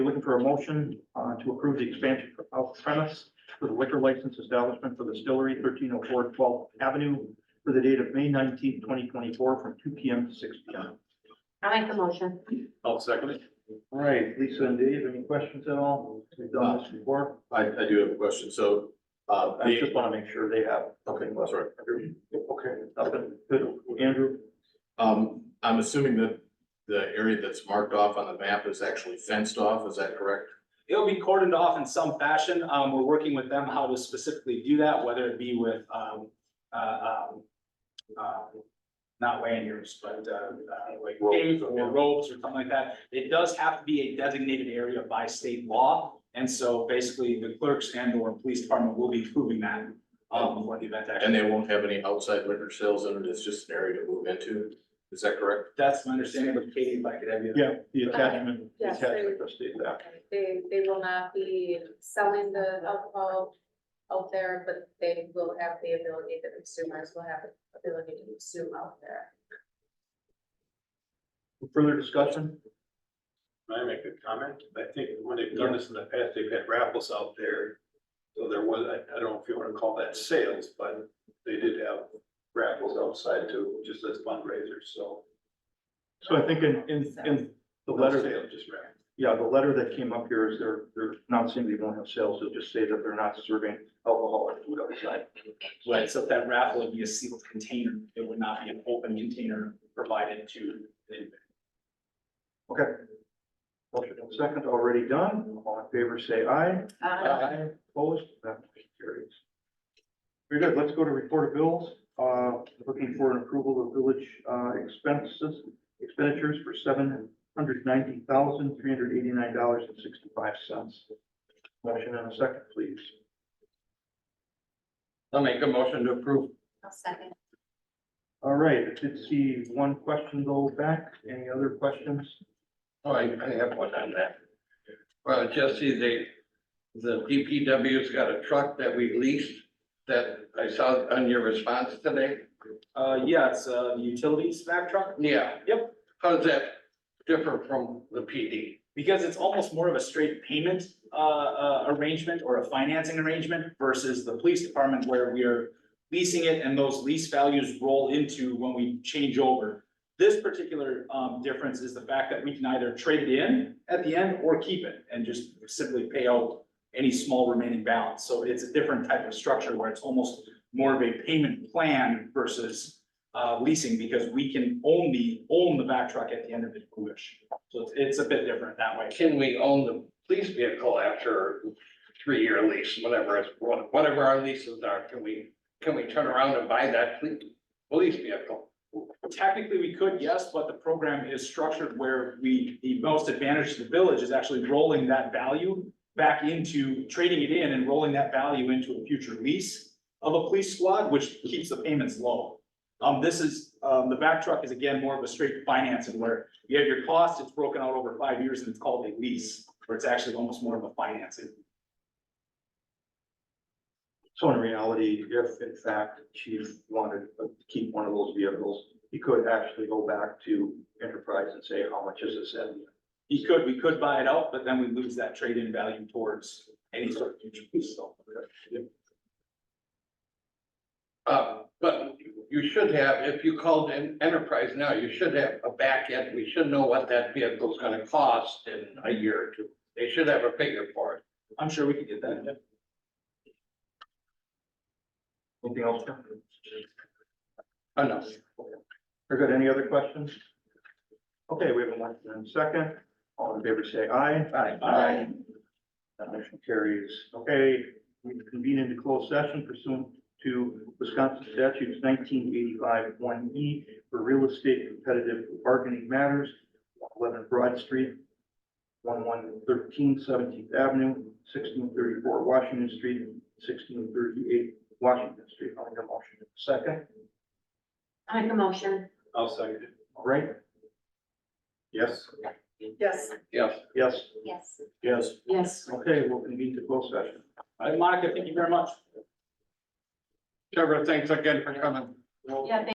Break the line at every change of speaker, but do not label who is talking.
Looking for a motion uh, to approve the expansion of premise for the liquor license establishment for the distillery 1304 12th Avenue for the date of May nineteenth, twenty twenty-four, from two P M to six P M.
I make the motion.
I'll second it.
All right, Lisa and Dave, any questions at all? We've done this before.
I, I do have a question, so, uh,
Uh, I just want to make sure they have.
okay, that's all right.
Okay. Nothing. Good. Andrew?
Um, I'm assuming that the area that's marked off on the map is actually fenced off, is that correct?
It'll be cordoned off in some fashion. Um, we're working with them how to specifically do that, whether it be with, um, uh, um, uh, not lanyards, but, uh, uh, like gates or ropes or something like that. It does have to be a designated area by state law. And so basically the clerks and or police department will be proving that, um, before the event
And
actually.
they won't have any outside liquor sales in it, it's just an area to move into, is that correct?
That's my understanding, but Katie, if I could have you.
Yeah, the attachment, the
Uh, Yes, they-
attachment trustee, that.
They, they will not be selling the alcohol out there, but they will have the ability, the consumers will have the ability to consume out there.
Further discussion?
Can I make a comment? I think when they've done this in the past, they've had raffles out there. So there was, I, I don't know if you wanna call that sales, but they did have raffles outside too, just as fundraisers, so.
So I think in, in, in the
no
letter.
sale, Just raffles.
Yeah, the letter that came up here is they're, they're not saying they won't have sales, they'll just say that they're not serving alcohol and food outside.
Right, so if that raffle would be a sealed container, it would not be an open container provided to the event.
Okay. Motion and second already done, all in favor say aye. Aye. Opposed, that motion carries. Very good, let's go to report of bills, uh, looking for an approval of village, uh, expenses, expenditures for seven hundred ninety thousand, three hundred eighty-nine dollars and sixty-five cents. Motion and a second, please.
I'll make a motion to approve.
I'll second.
All right, I did see one question go back. Any other questions?
Oh, I, I have one on that. Well, Jesse, they, the DPW's got a truck that we leased that I saw on your response today.
Uh, yeah, it's a utility snack truck.
Yeah.
Yep.
How's that differ from the PD?
Because it's almost more of a straight payment, uh, uh, arrangement or a financing arrangement versus the police department where we are leasing it and those lease values roll into when we change over. This particular, um, difference is the fact that we can either trade it in at the end or keep it and just simply pay out any small remaining balance. So it's a different type of structure where it's almost more of a payment plan versus, uh, leasing because we can own the, own the back truck at the end of it if we wish. So it's, it's a bit different that way.
Can we own the police vehicle after three-year lease, whatever, it's whatever our leases are? Can we, can we turn around and buy that police, police vehicle?
Technically, we could, yes, but the program is structured where we, the most advantage to the village is actually rolling that value back into trading it in and rolling that value into a future lease of a police squad, which keeps the payments low. Um, this is, um, the back truck is again more of a straight financing where you have your cost, it's broken out over five years and it's called a lease, where it's actually almost more of a financing.
So in reality, if in fact chief wanted to keep one of those vehicles, he could actually go back to Enterprise and say, how much is this? And
You could, we could buy it out, but then we lose that trade-in value towards any sort of future lease, so.
Uh, but you should have, if you called in enterprise now, you should have a back end. we should know what that vehicle's gonna cost in a year or two. They should have a figure for it.
I'm sure we could get that.
Anything else? Tim?
Enough.
Very good, any other questions? Okay, we have a motion and second, all in favor say aye.
Aye.
Aye. That motion carries. Okay, we convene into closed session pursuant to Wisconsin statutes nineteen eighty-five one E for real estate competitive bargaining matters, eleven Broad Street, 1113 17th Avenue, sixteen thirty-four Washington Street, sixteen thirty-eight Washington Street. I'll make a motion in a second,
I make a motion.
I'll second it.
all right?
Yes.
Yes.
Yes,
Yes,
Yes.
Yes.
Yes.
okay, we'll convene to closed session.
All right, Monica, thank you very much.
Trevor, thanks again for coming.
Yeah,